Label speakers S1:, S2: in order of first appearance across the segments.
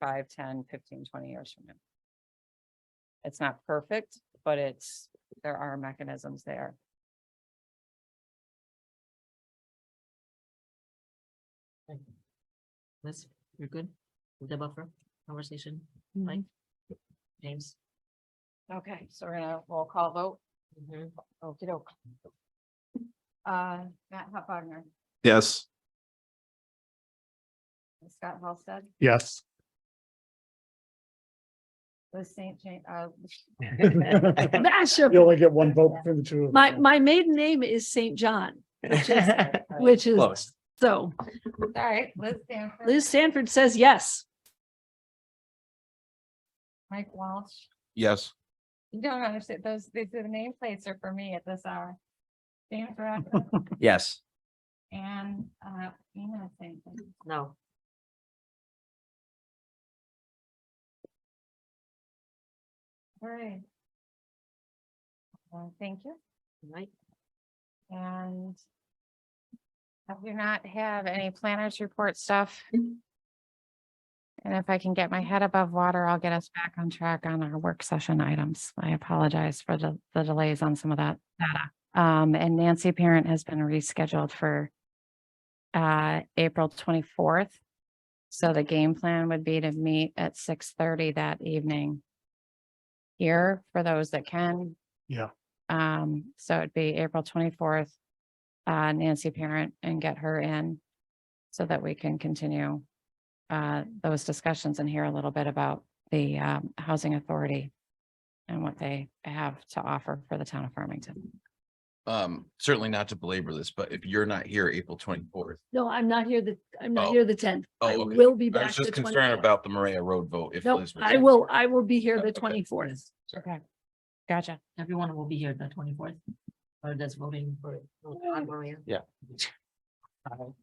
S1: five, 10, 15, 20 years from now. It's not perfect, but it's, there are mechanisms there.
S2: Liz, you're good? with The buffer conversation,
S1: Mm-hmm.
S2: Mike? James?
S1: Okay, so we're gonna roll call vote. Okey doke. Uh, Matt Hupagner,
S3: Yes.
S1: Scott Halstead,
S4: Yes.
S1: Liz St. James, uh,
S5: Mashup.
S4: You only get one vote for the two. of
S5: My,
S4: them.
S5: my maiden name is Saint John,
S2: Which
S5: which is,
S3: Close.
S5: so
S1: sorry, Liz Stanford.
S5: Liz Sanford says yes.
S1: Mike Walsh.
S3: Yes.
S1: You don't understand, those, the, the nameplates are for me at this hour. Stanford
S3: Yes.
S1: and, uh, Ina St.
S2: No.
S1: Right. Well, thank you,
S2: Right.
S1: and I do not have any planners report stuff. And if I can get my head above water, I'll get us back on track on our work session items. I apologize for the, the delays on some of that data. Um, and Nancy Parent has been rescheduled for uh, April twenty-fourth. So the game plan would be to meet at six thirty that evening here for those that can.
S4: Yeah.
S1: Um, so it'd be April twenty-fourth, uh, Nancy Parent and get her in so that we can continue uh, those discussions and hear a little bit about the, um, Housing Authority and what they have to offer for the town of Farmington.
S6: um, certainly not to belabor this, but if you're not here April twenty-fourth.
S5: No, I'm not here the, I'm not
S6: Oh.
S5: here the tenth.
S6: Oh,
S5: I
S6: okay.
S5: will be
S6: I
S5: back.
S6: was just
S5: the
S6: concerned
S5: 24th.
S6: about the Maria Road vote. if
S5: Nope,
S6: Liz was
S5: I
S6: here.
S5: will, I will be here
S6: Oh,
S5: the
S6: okay.
S5: twenty-fourth.
S1: Okay. Gotcha.
S2: Everyone will be here the twenty-fourth. Or that's voting for. vote on Maria.
S3: Yeah.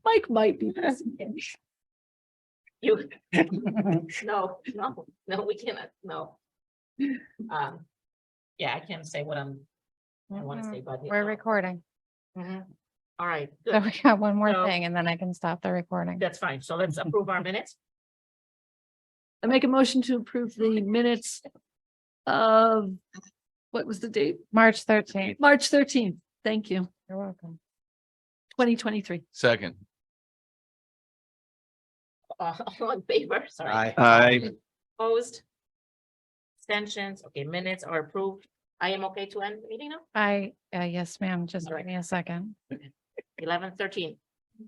S5: Mike might be. busy.
S2: You, no, no, no, we cannot, no. Um, yeah, I can't say what I'm, I wanna
S1: Mhm.
S2: say, but.
S1: We're recording.
S2: All right,
S1: So
S2: good.
S1: we got one more
S2: Mm-hmm. So-
S1: thing and then I can stop the recording.
S2: That's fine. So let's approve our minutes.
S5: I make a motion to approve the minutes of, what was the date?
S1: March thirteenth.
S5: March thirteenth. Thank you,
S1: You're welcome.
S5: twenty twenty-three.
S6: Second,
S2: Uh, All in favor, sorry.
S3: Hi.
S2: Opposed? Extensions, okay, minutes are approved. I am okay to end the meeting now,
S1: I, uh, yes, ma'am, just
S2: All
S1: give
S2: right.
S1: me a second.
S2: eleven thirteen.